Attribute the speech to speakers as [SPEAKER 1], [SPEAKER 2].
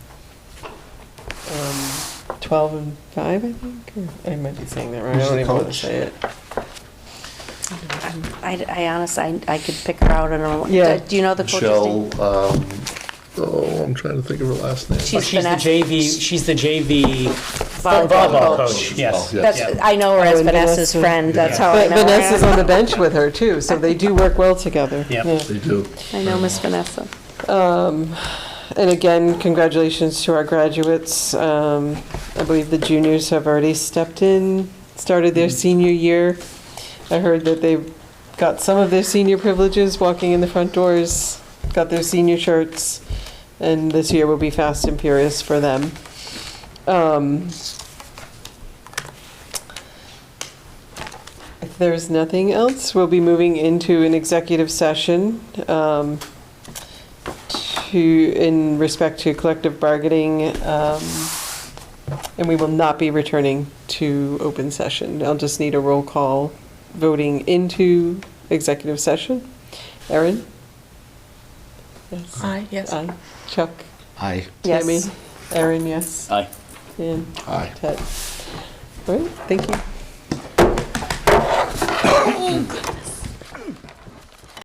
[SPEAKER 1] um, 12 and 5, I think? Or I might be saying that wrong.
[SPEAKER 2] Who's
[SPEAKER 1] I don't
[SPEAKER 2] the
[SPEAKER 1] even want to
[SPEAKER 2] coach?
[SPEAKER 1] say it.
[SPEAKER 3] I, I honestly, I- I could pick her out, I don't
[SPEAKER 1] Yeah.
[SPEAKER 3] know. Do you know the coach's
[SPEAKER 2] Michelle,
[SPEAKER 3] name?
[SPEAKER 2] um, oh, I'm trying to think of her last name.
[SPEAKER 3] She's
[SPEAKER 4] She's the
[SPEAKER 3] been at-
[SPEAKER 4] JV, she's the JV Oh, volleyball coach, yes.
[SPEAKER 2] Yeah.
[SPEAKER 3] That's, I know her
[SPEAKER 1] Oh,
[SPEAKER 3] as
[SPEAKER 1] and
[SPEAKER 3] Vanessa's
[SPEAKER 1] Vanessa.
[SPEAKER 3] friend, that's how Oh, I
[SPEAKER 1] But
[SPEAKER 3] know her.
[SPEAKER 1] Vanessa's on the bench with her, too, so they do work well together.
[SPEAKER 4] Yep.
[SPEAKER 1] Yeah.
[SPEAKER 2] They do.
[SPEAKER 3] I know Miss Vanessa.
[SPEAKER 1] Um, And again, congratulations to our graduates. Um, I believe the juniors have already stepped in, started their senior year. I heard that they've got some of their senior privileges, walking in the front doors, got their senior shirts, and this year will be fast and furious for them. Um, If there's nothing else, we'll be moving into an executive session. Um, to, in respect to collective bargaining, um, and we will not be returning to open session. I'll just need a roll call voting into executive session. Erin? Yes.
[SPEAKER 5] Aye, yes.
[SPEAKER 1] Aye. Chuck?
[SPEAKER 6] Aye.
[SPEAKER 3] Yes.
[SPEAKER 1] Tammy? Erin, yes.
[SPEAKER 6] Aye.
[SPEAKER 1] And
[SPEAKER 2] Hi.
[SPEAKER 1] Ted? All right, thank you.